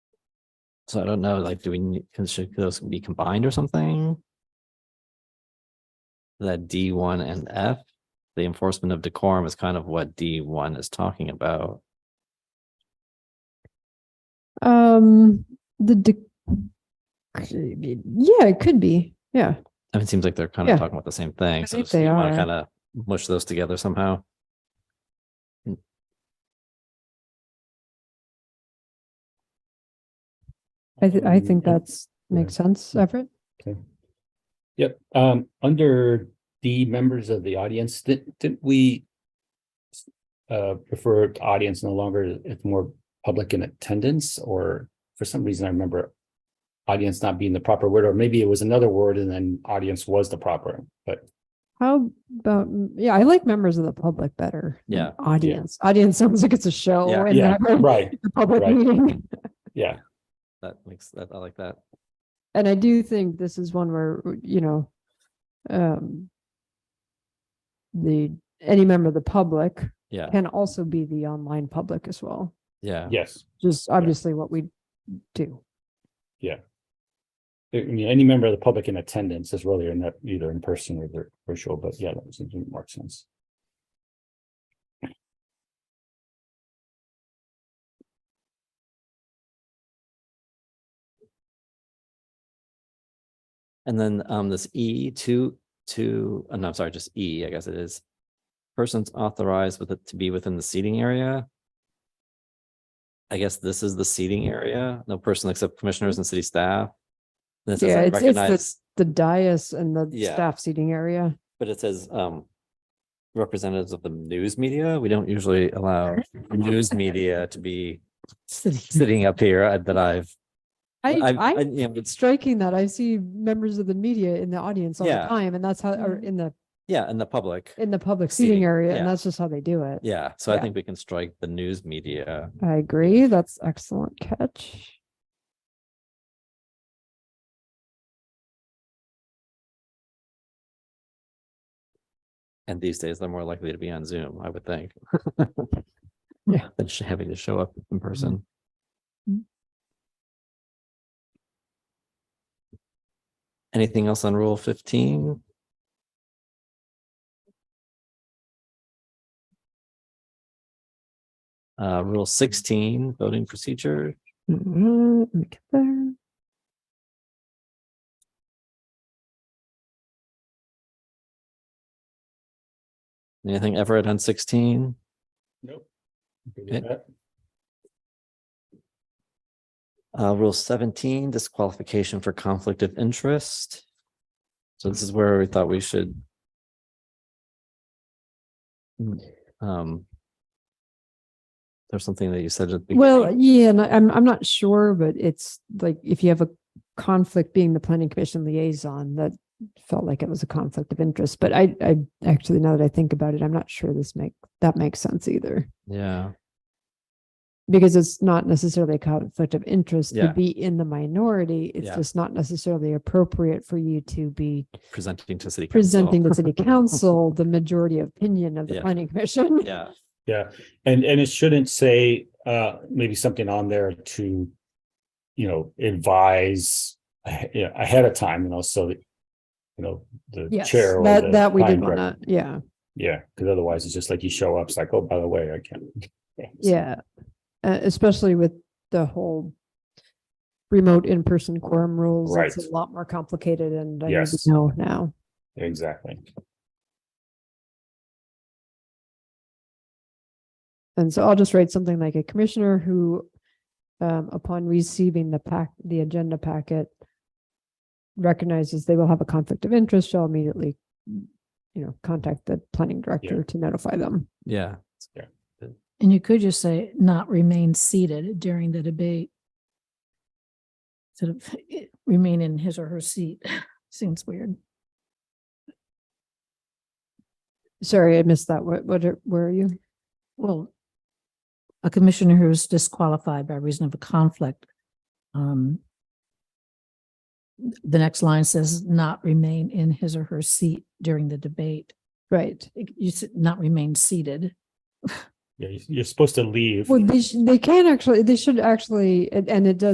So I don't know, like, do we, need- can- should those be combined or something? That D one and F, the enforcement of decorum is kind of what D one is talking about. Um, the de- yeah, it could be. Yeah. I mean, it seems like they're kind of Yeah. talking about the same thing. So think just they you want are. to kind of mush those together somehow. I th- I think Um, that's makes sense, Everett. Yep, um, under the members of the audience, did, did we uh, prefer to audience no longer, it's more public in attendance, or for some reason I remember audience not being the proper word, or maybe it was another word and then audience was the proper, but How about yeah, I like members of the public better. than Yeah, Audience. Audience sounds like it's a show Yeah. and yeah, never right, a public right. meeting. yeah, That makes that, I like that. And I do think this is one where, you know, um the any member of the public Yeah, can also be the online public as well. yeah. yes. Just obviously what we do. I mean, any member of the public in attendance is really in- either in person or vir- virtual, but yeah, that seems to make more sense. And then um this E two two, uh, no, I'm sorry, just E, I guess it is. Persons authorized with it to be within the seating area. I guess this is the seating area, no person except commissioners and city staff. Then it says, Yeah, "I it's- it's the- recognize, The dais and the Yeah. staff seating area. but it says um. Representatives of the news media, we don't usually allow news media to be sitting up here uh, that I've. I, I've- I, I- yeah, it's striking that I see members of the media in the audience all Yeah. the time, and that's how, or in the Yeah, in the public, in the public seating, Seating, area, yeah. and that's just how they do it. yeah, so I Yeah. think we can strike the news media. I agree. That's excellent catch. And these days, they're more likely to be on Zoom, I would think. Yeah. Than sh- having to show up in person. Mm. Anything else on rule fifteen? Uh, rule sixteen, voting procedure. Mhm, Let me get there. Anything Everett on sixteen? Nope. Eh, Okay. Uh, rule seventeen, disqualification for conflict of interest. So this is where we thought we should. Mm, Um. There's something that you said at the Well, beginning. yeah, and I- I'm I'm not sure, but it's like if you have a conflict being the planning commission liaison, that felt like it was a conflict of interest. But I I actually now that I think about it, I'm not sure this make that makes sense either. Yeah, because it's not necessarily a conflict of interest Yeah. to be in the minority. It's Yeah. just not necessarily appropriate for you to be presenting to city. council. presenting to city council the majority opinion of the Yeah. planning commission. Yeah, Yeah, and and it shouldn't say uh maybe something on there to, you know, advise ahe- yeah, ahead of time, you know, so that you know, the Yes, chair. or the that, that we did planning want to, director- yeah, Yeah, because otherwise it's just like you show up, it's like, oh, by the way, I can't. yeah. Uh, especially with the whole remote in-person quorum rules. It's Right. a lot more complicated and I need to Yes. know now. Exactly. And so I'll just write something like a commissioner who, um, upon receiving the pack, the agenda packet, recognizes they will have a conflict of interest, shall immediately, you know, contact the planning director to notify them. yeah, And you could just say not remain seated during the debate. Sort of eh, remain in his or her seat. Seems weird. Sorry, I missed that. What, what, are- where are you? Well, a commissioner who is disqualified by reason of a conflict. um, The next line says not remain in his or her seat during the debate. Right. It- You said not remain seated. Yeah, you- you're supposed to leave. Well, they, sh- they can actually, they should actually, and and it does